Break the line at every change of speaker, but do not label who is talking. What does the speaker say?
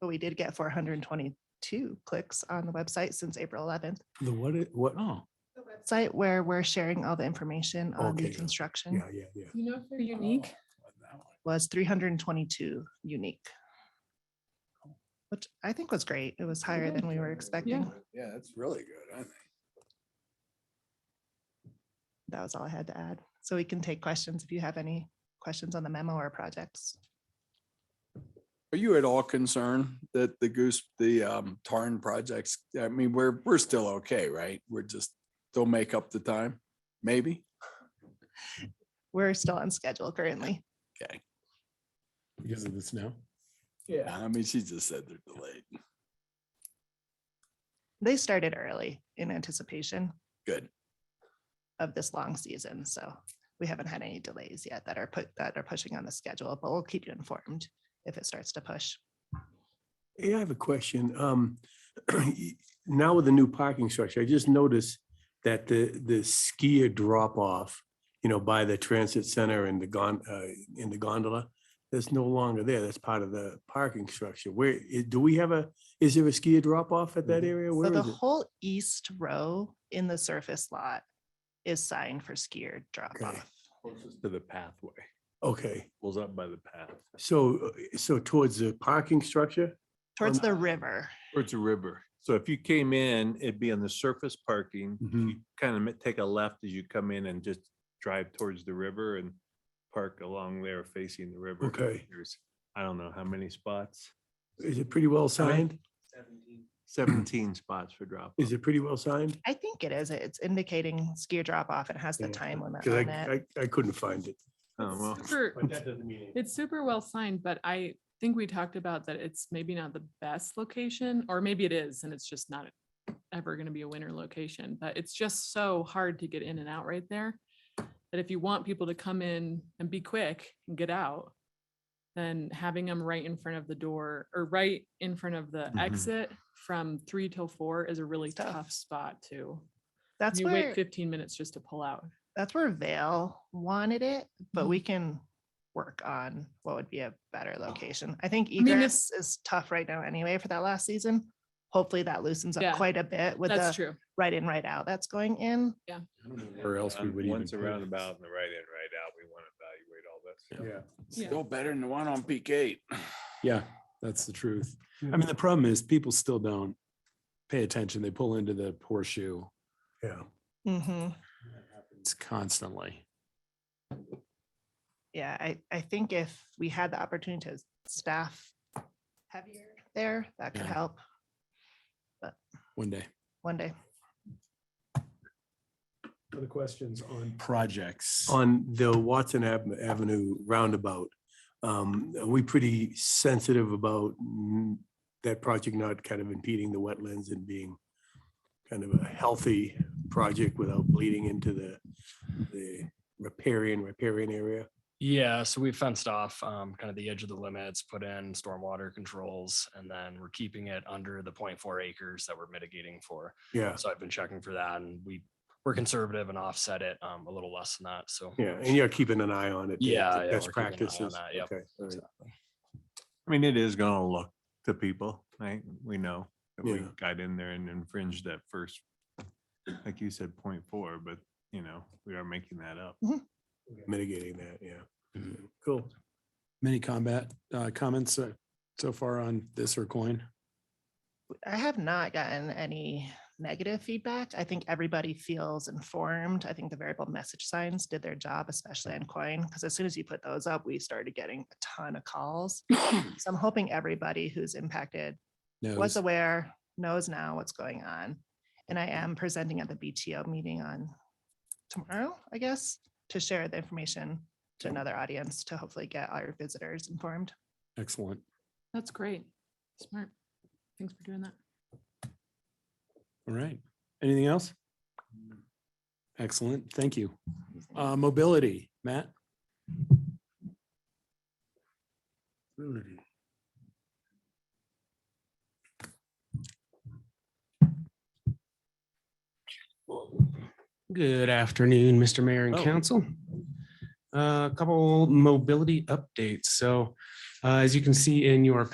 But we did get four hundred and twenty-two clicks on the website since April eleventh.
The what, it- what?
Oh,
Site where we're sharing all the information on
Okay,
the
yeah.
construction
Yeah, yeah, yeah.
You know, if they're unique.
was three hundred and twenty-two unique. Which I think was great. It was higher
Yeah.
than we were expecting.
Yeah, that's really good. I think.
That was all I had to add. So we can take questions if you have any questions on the memo or projects.
Are you at all concerned that the goose, the um, Tarn projects, I mean, we're, we're still okay, right? We're just, they'll make up the time, maybe?
We're still on schedule currently.
because of the snow.
Yeah.
I mean, she just said they're delayed.
They started early in anticipation
Good.
of this long season, so we haven't had any delays yet that are put, that are pushing on the schedule, but we'll keep you informed if it starts to push.
Hey, I have a question. Um, now with the new parking structure, I just noticed that the, the skier drop off, you know, by the transit center and the gon, uh, in the gondola, that's no longer there. That's part of the parking structure. Where, i- do we have a, is there a skier drop off at that area?
So
Where
the
is it?
whole east row in the surface lot is signed for skier drop
Okay.
off.
closest to the pathway,
Okay,
pulls up by the path,
so, uh, so towards the parking structure?
Towards the river,
or it's a river. So if you came in, it'd be on the surface parking,
Mhm.
kind of take a left as you come in and just drive towards the river and park along there facing the river.
Okay.
There's, I don't know how many spots,
Is it pretty well signed?
seventeen spots for drop.
Is it pretty well signed?
I think it is, it's indicating skier drop off and has the
Yeah,
time limit
Because
on
I,
it.
I, I couldn't find it.
Oh, well,
Super-
doesn't mean.
It's super well signed, but I think we talked about that it's maybe not the best location, or maybe it is, and it's just not ever gonna be a winner location, but it's just so hard to get in and out right there. That if you want people to come in and be quick and get out, then having them right in front of the door or right in front of the
Mhm.
exit from three till four is a really
It's tough.
tough spot too.
That's
You wait
where,
fifteen minutes just to pull out.
that's where Vale wanted it, but
Mhm.
we can work on what would be a better location. I think
mean, if-
egress is tough right now anyway for that last season. Hopefully that loosens
Yeah,
up quite a bit with
That's
the
true.
right in, right out that's going in.
Or else we
Um,
would even
Once a
put it.
roundabout and the right in, right out, we want to evaluate all that. stuff.
Yeah.
Yeah.
Still better than the one on peak eight.
Yeah, that's the truth.
Yeah.
I mean, the problem is people still don't pay attention. They pull into the horseshoe.
Yeah.
Mm-hmm.
It's constantly.
Yeah, I, I think if we had the opportunity to staff heavier there, that could
Yeah.
help
One day.
one day.
Other questions on? Projects.
On the Watson Ave- Avenue roundabout, um, are we pretty sensitive about mm, that project not kind of impeding the wetlands and being kind of a healthy project without bleeding into the, the riparian, riparian area?
Yeah, so we fenced off um, kind of the edge of the limits, put in stormwater controls, and then we're keeping it under the 0.4 acres that we're mitigating for.
Yeah,
So I've been checking for that, and we we're conservative and offset it um, a little less than that. So
yeah, and you're keeping an eye on it. the-
Yeah,
the
yeah,
Best
we're keeping an eye on
practices.
that, yep.
Okay, all right.
I mean, it is gonna look to people, right? We know that we
Yeah.
got in there and infringed that first, like you said, point four, but you know, we are making that up.
Mitigating that, yeah.
Mm-hmm.
Mhm.
Cool.
Many combat, uh, comments uh, so far on this or coin?
I have not gotten any negative feedback. I think everybody feels informed. I think the variable message signs did their job, especially on coin, because as soon as you put those up, we started getting a ton of calls. So I'm hoping everybody who's impacted
No.
was aware, knows now what's going on. And I am presenting at the BTO meeting on tomorrow, I guess, to share the information to another audience to hopefully get our visitors informed.
Excellent.
That's great. Smart. Thanks for doing that.
All right. Anything else? Excellent. Thank you. Uh, mobility, Matt?
Good afternoon, Mr. Mayor and
Oh.
Council. Uh, A couple mobility updates. So uh, as you can see in your